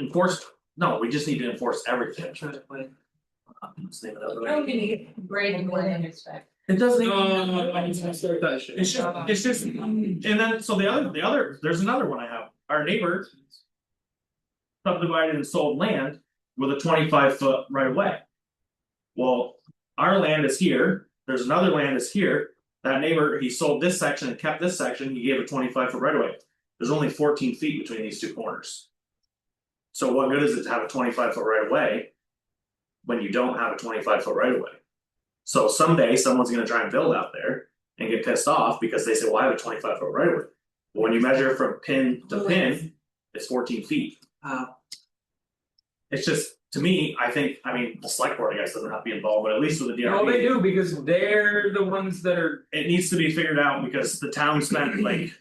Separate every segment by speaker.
Speaker 1: enforce, no, we just need to enforce everything. Uh, Let's name it
Speaker 2: Now
Speaker 1: up.
Speaker 2: we need to get Brandon Williams back.
Speaker 1: It does
Speaker 3: No,
Speaker 1: need.
Speaker 3: no, no, no, I need to start that shit.
Speaker 1: It's just, it's just, and then, so the other, the other, there's another one I have, our neighbor. Subdivided and sold land with a twenty five foot right of way. Well, our land is here, there's another land is here, that neighbor, he sold this section and kept this section, he gave a twenty five foot right of way. There's only fourteen feet between these two corners. So what good is it to have a twenty five foot right of way? When you don't have a twenty five foot right of way? So someday someone's gonna try and build out there and get pissed off because they say, well, I have a twenty five foot right away. But when you measure from pin to pin, it's fourteen feet.
Speaker 3: Wow.
Speaker 1: It's just, to me, I think, I mean, the select board, I guess, doesn't have to be involved, but at least with the
Speaker 3: No,
Speaker 1: DRB,
Speaker 3: they do, because they're the ones that are,
Speaker 1: it needs to be figured out because the town spent like.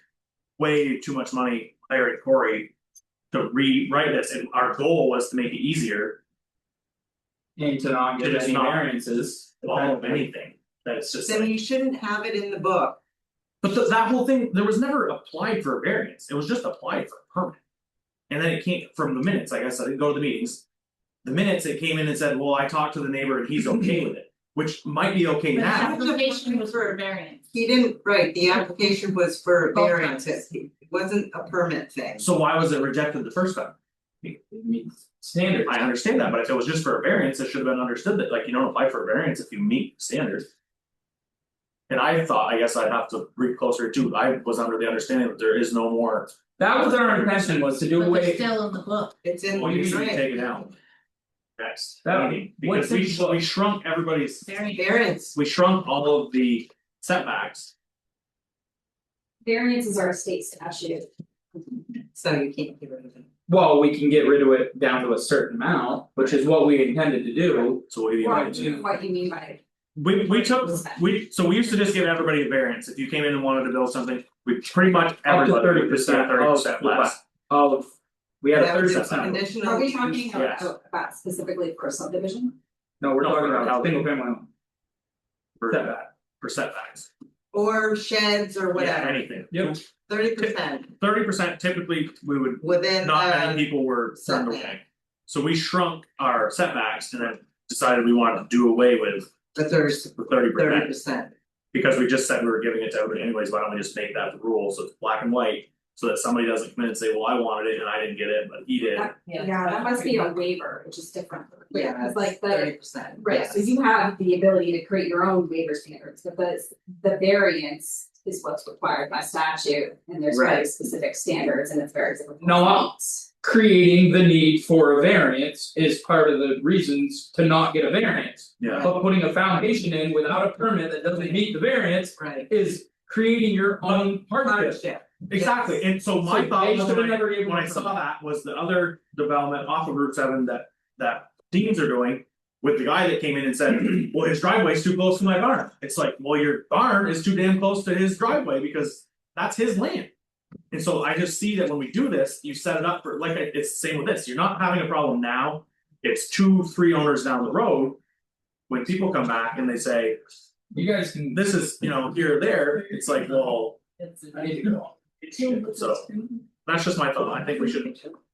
Speaker 1: Way too much money hiring Corey to rewrite this, and our goal was to make it easier,
Speaker 3: into not get
Speaker 1: It's
Speaker 3: any
Speaker 1: not-
Speaker 3: variances.
Speaker 1: all of anything, that it's just
Speaker 4: Then
Speaker 1: like-
Speaker 4: you shouldn't have it in the book.
Speaker 1: But th- that whole thing, there was never applied for a variance, it was just applied for a permit. And then it came from the minutes, like I said, I go to the meetings. The minutes, it came in and said, well, I talked to the neighbor and he's okay with it, which might be okay
Speaker 2: The
Speaker 1: now,
Speaker 2: application was for a variance.
Speaker 4: He didn't, right, the application was for
Speaker 2: Both
Speaker 4: variances, it wasn't a permit thing.
Speaker 1: so why was it rejected the first time?
Speaker 3: Standard.
Speaker 1: I understand that, but if it was just for a variance, it should have been understood that, like, you don't apply for a variance if you meet standards. And I thought, I guess I'd have to read closer too, I was under the understanding that there is no more,
Speaker 3: That was our intention, was to
Speaker 2: But
Speaker 3: do
Speaker 2: they're
Speaker 3: away,
Speaker 2: still in the book.
Speaker 4: It's in,
Speaker 1: well, you should
Speaker 4: right,
Speaker 1: take it out. Next,
Speaker 3: That-
Speaker 1: meeting, because
Speaker 3: what's in
Speaker 1: we
Speaker 3: the
Speaker 1: sh-
Speaker 3: book?
Speaker 1: we shrunk everybody's
Speaker 2: Variance.
Speaker 4: variance,
Speaker 1: we shrunk all of the setbacks.
Speaker 5: Variances are a state statute.
Speaker 4: so you can't get rid of it.
Speaker 3: well, we can get rid of it down to a certain amount, which is what we intended to do.
Speaker 1: So what do you
Speaker 5: What
Speaker 1: mean?
Speaker 3: Right.
Speaker 5: you, what you mean by
Speaker 1: We we took, we, so we used to just give everybody a variance, if you came in and wanted to build something, we pretty much everybody would just get
Speaker 3: 30%
Speaker 1: thirty percent
Speaker 3: of the
Speaker 1: less.
Speaker 3: Of, we had a
Speaker 4: That was
Speaker 3: thirty
Speaker 4: just
Speaker 3: percent,
Speaker 4: conditional
Speaker 5: are we
Speaker 4: use.
Speaker 5: talking
Speaker 1: Yes.
Speaker 5: about about specifically for subdivision?
Speaker 3: no, we're
Speaker 1: No,
Speaker 3: talking
Speaker 1: for
Speaker 3: about
Speaker 1: housing.
Speaker 3: single family home,
Speaker 1: For
Speaker 3: setback.
Speaker 1: for setbacks,
Speaker 4: Or sheds or
Speaker 1: yeah,
Speaker 4: whatever,
Speaker 1: anything,
Speaker 3: Yep.
Speaker 4: thirty percent
Speaker 1: thirty percent typically, we would,
Speaker 4: within
Speaker 1: not
Speaker 4: uh
Speaker 1: many people were turned
Speaker 4: setback.
Speaker 1: away. So we shrunk our setbacks and then decided we wanted to do away with
Speaker 4: the thirty,
Speaker 1: the thirty
Speaker 4: thirty
Speaker 1: percent,
Speaker 4: percent.
Speaker 1: because we just said we were giving it to everybody anyways, why don't we just make that the rule, so it's black and white? So that somebody doesn't come in and say, well, I wanted it and I didn't get it, but he did,
Speaker 5: That- Yeah, that must be a waiver, which is different.
Speaker 4: Yeah,
Speaker 5: It's like the,
Speaker 4: thirty percent,
Speaker 5: right, so you have the ability to create your own waiver standards, but the the variance is what's required by statute. And there's very
Speaker 4: Right.
Speaker 5: specific standards and it's very difficult.
Speaker 3: No, I- Creating the need for a variance is part of the reasons to not get a variance.
Speaker 1: yeah,
Speaker 3: But putting a foundation in without a permit that doesn't meet the variance
Speaker 4: Right.
Speaker 3: is creating your own hardship.
Speaker 4: Hardship,
Speaker 1: exactly, and so my
Speaker 3: So
Speaker 1: thought
Speaker 3: they
Speaker 1: was
Speaker 3: should've
Speaker 1: when I,
Speaker 3: never given
Speaker 1: when I
Speaker 3: them
Speaker 1: saw
Speaker 3: permission.
Speaker 1: that was the other development off of Route seven that. That Deans are doing with the guy that came in and said, well, his driveway's too close to my barn, it's like, well, your barn is too damn close to his driveway because that's his land. And so I just see that when we do this, you set it up for, like, I- it's the same with this, you're not having a problem now, it's two, three owners down the road. When people come back and they say,
Speaker 3: You guys can.
Speaker 1: this is, you know, here or there, it's like, well,
Speaker 3: I need to go.
Speaker 1: so. That's just my thought, I think we should.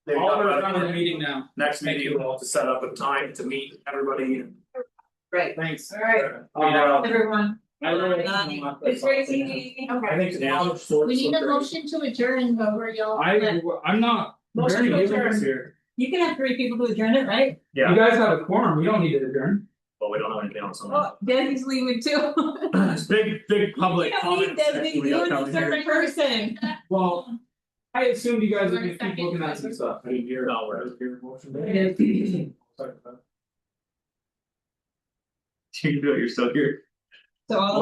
Speaker 1: maybe
Speaker 3: All
Speaker 1: talk
Speaker 3: we're
Speaker 1: about it
Speaker 3: done in the meeting now.
Speaker 1: Next
Speaker 3: Thank
Speaker 1: meeting,
Speaker 3: you.
Speaker 1: we'll have to set up a time to meet everybody and.
Speaker 4: right,
Speaker 3: Thanks.
Speaker 2: Alright,
Speaker 3: Uh,
Speaker 2: everyone,
Speaker 3: I really.
Speaker 2: it's crazy meeting, okay.
Speaker 3: I think now.
Speaker 2: We need a motion to adjourn over y'all.
Speaker 3: I, I'm not.
Speaker 2: Motion
Speaker 3: very
Speaker 2: to
Speaker 3: good
Speaker 2: adjourn.
Speaker 3: here.
Speaker 2: You can have three people to adjourn it, right?
Speaker 3: You
Speaker 1: Yeah,
Speaker 3: guys have a quorum, we don't need to adjourn.
Speaker 1: but we don't know anything else on that.
Speaker 2: Oh, Desi's leaving too.
Speaker 1: It's big, big public comment section we got coming here.
Speaker 2: person.
Speaker 3: Well, I assumed you guys would just keep
Speaker 2: Second.
Speaker 3: looking at some stuff.
Speaker 1: I didn't hear it all, right?
Speaker 3: Sorry about that.
Speaker 1: You can do it, you're still here.
Speaker 2: So all